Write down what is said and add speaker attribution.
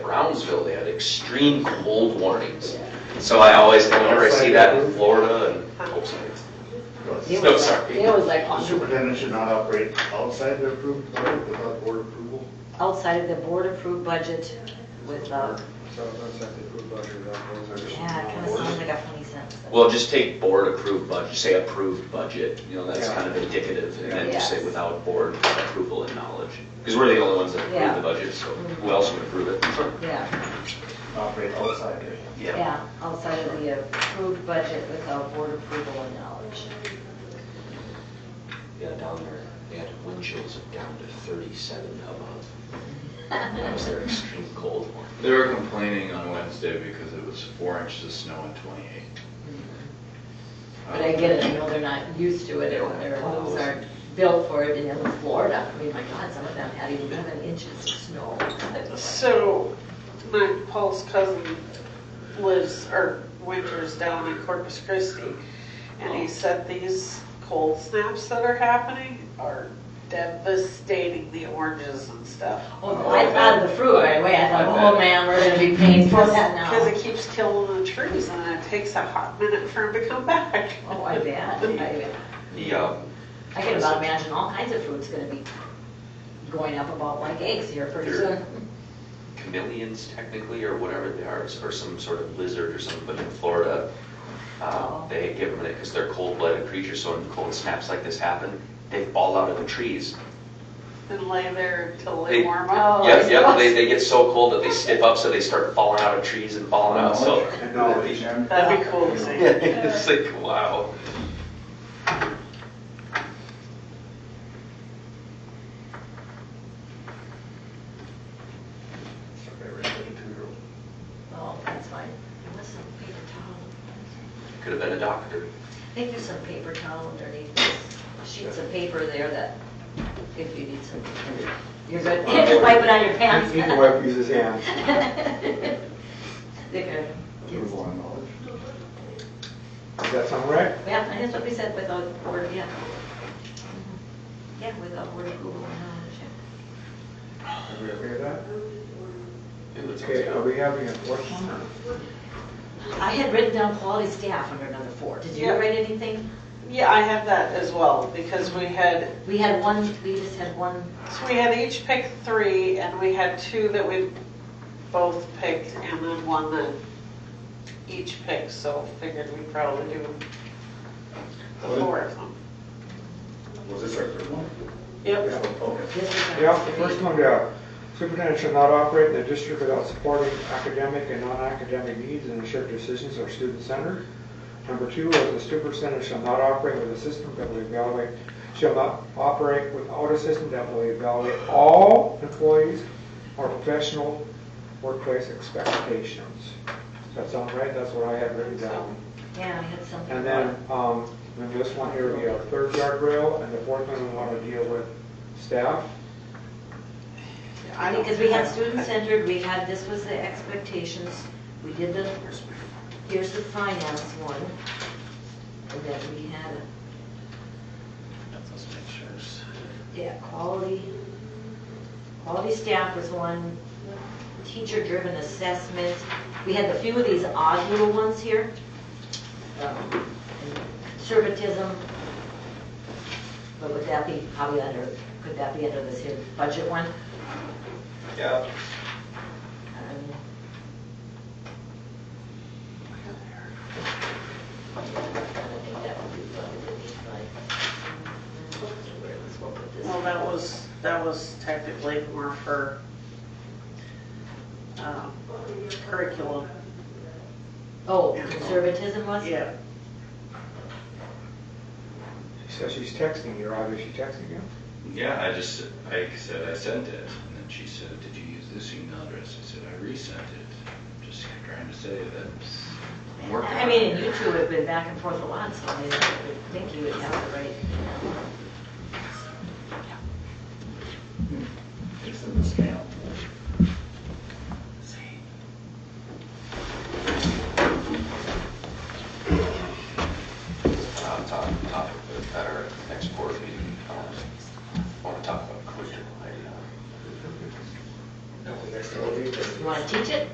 Speaker 1: Brownsville, they had extreme cold warnings. So I always, whenever I see that in Florida and, oh, sorry.
Speaker 2: It
Speaker 1: No,
Speaker 2: was like-
Speaker 1: sorry.
Speaker 2: It was like
Speaker 3: The
Speaker 2: on-
Speaker 3: Superintendent should not operate outside their approved budget without board approval.
Speaker 2: outside of the board-approved budget with, uh,
Speaker 4: So that's at the approved budget, that goes there.
Speaker 2: yeah, it kind of sounds like a funny sentence.
Speaker 1: Well, just take board approved budget, say approved budget, you know, that's
Speaker 4: Yeah.
Speaker 1: kind of indicative, and then just say
Speaker 2: Yes.
Speaker 1: without board approval and knowledge. Because we're the only ones that approve
Speaker 2: Yeah.
Speaker 1: the budget, so who else would approve it?
Speaker 2: Yeah,
Speaker 3: Operate outside their.
Speaker 2: yeah, outside of the approved budget without board approval and knowledge.
Speaker 1: Yeah, down there, they had wind chills of down to thirty-seven above. That was their extreme cold one.
Speaker 5: They were complaining on Wednesday because it was four inches of snow and twenty-eight.
Speaker 2: But I get it, I know they're not used to it, and their homes aren't built for it, and in Florida, I mean, my God, some of them had eleven inches of snow. It was like-
Speaker 6: So, my, Paul's cousin lives, or winters down in Corpus Christi, and he said these cold snaps that are happening are devastating the oranges and stuff.
Speaker 2: Oh, I thought of the fruit right away, I thought, oh man, we're gonna be paying for that now.
Speaker 6: Because it keeps killing the trees, and it takes a hot minute for them to come back.
Speaker 2: Oh, I bet, I bet.
Speaker 1: The, um,
Speaker 2: I can about imagine all kinds of food's gonna be going up about like eggs here pretty
Speaker 1: Sure.
Speaker 2: soon.
Speaker 1: chameleons technically, or whatever they are, or some sort of lizard or something, but in Florida, uh, they give them, because they're cold-blooded creatures, so when cold snaps like this happen, they fall out of the trees.
Speaker 6: And lay there until they
Speaker 1: They-
Speaker 6: warm
Speaker 4: Oh,
Speaker 6: up.
Speaker 2: Oh.
Speaker 1: Yeah, yeah, they, they get so cold that they stiff up, so they start falling out of trees and
Speaker 3: Oh,
Speaker 1: falling out, so.
Speaker 4: Acknowledge, and
Speaker 6: That'd be cool to see.
Speaker 1: It's like, wow.
Speaker 2: Oh, that's fine. There was some paper towel.
Speaker 1: Could have been a doctor.
Speaker 2: I think there's some paper towel underneath this sheets of paper there that if you need some, you're good. Just wipe it on your pants.
Speaker 4: He can wipe his hands.
Speaker 2: They could,
Speaker 4: Approval on knowledge. Does that sound right?
Speaker 2: yeah, and that's what we said without word, yeah. Yeah, without word approval and knowledge, yeah.
Speaker 4: Everybody agree with that?
Speaker 1: It was-
Speaker 4: Okay, are we having a fourth one or?
Speaker 2: I had written down quality staff under number four. Did you
Speaker 6: Yeah.
Speaker 2: write anything?
Speaker 6: Yeah, I have that as well, because we had
Speaker 2: We had one, we just had one,
Speaker 6: So we had each pick three, and we had two that we both picked, and then one that each picked, so figured we'd probably do the four of them.
Speaker 3: Was this our third one?
Speaker 6: Yep.
Speaker 3: Oh, Okay.
Speaker 2: this was.
Speaker 4: Yeah, the first one, yeah. Superintendent shall not operate in the district without supporting academic and non-academic needs and ensure decisions are student-centered. Number two was the superintendent shall not operate with a system that will evaluate, shall not operate without a system that will evaluate all employees or professional workplace expectations. Does that sound right? That's what I had written down.
Speaker 2: Yeah, I had something.
Speaker 4: And then, um, then this one here would be our third guardrail, and the fourth one we want to deal with staff.
Speaker 6: I don't-
Speaker 2: Because we had student-centered, we had, this was the expectations, we did the, here's the finance one. And then we had, yeah, quality, quality staff was one, teacher-driven assessment. We had a few of these odd little ones here. Um, and Conservatism, but would that be probably under, could that be under this here budget one?
Speaker 1: Yeah.
Speaker 2: Um, I think that would be fun, it would be fun. Where was- we'll put this-
Speaker 6: Well, that was, that was technically more for um, curriculum.
Speaker 2: Oh, conservatism was?
Speaker 6: Yeah.
Speaker 4: So she's texting you, Roger, is she texting you?
Speaker 5: Yeah, I just, I said I sent it, and then she said, did you use this email address? I said, I resent it. Just trying to say that I'm working
Speaker 2: I
Speaker 5: on
Speaker 2: mean,
Speaker 5: it.
Speaker 2: and you two have been back and forth a lot, so I mean, I would think you would have the right, you know.
Speaker 3: It's in the scale.
Speaker 1: Uh, top, topic for- at our next board meeting, um, I want to talk about curriculum. I, uh,
Speaker 2: You want to teach it?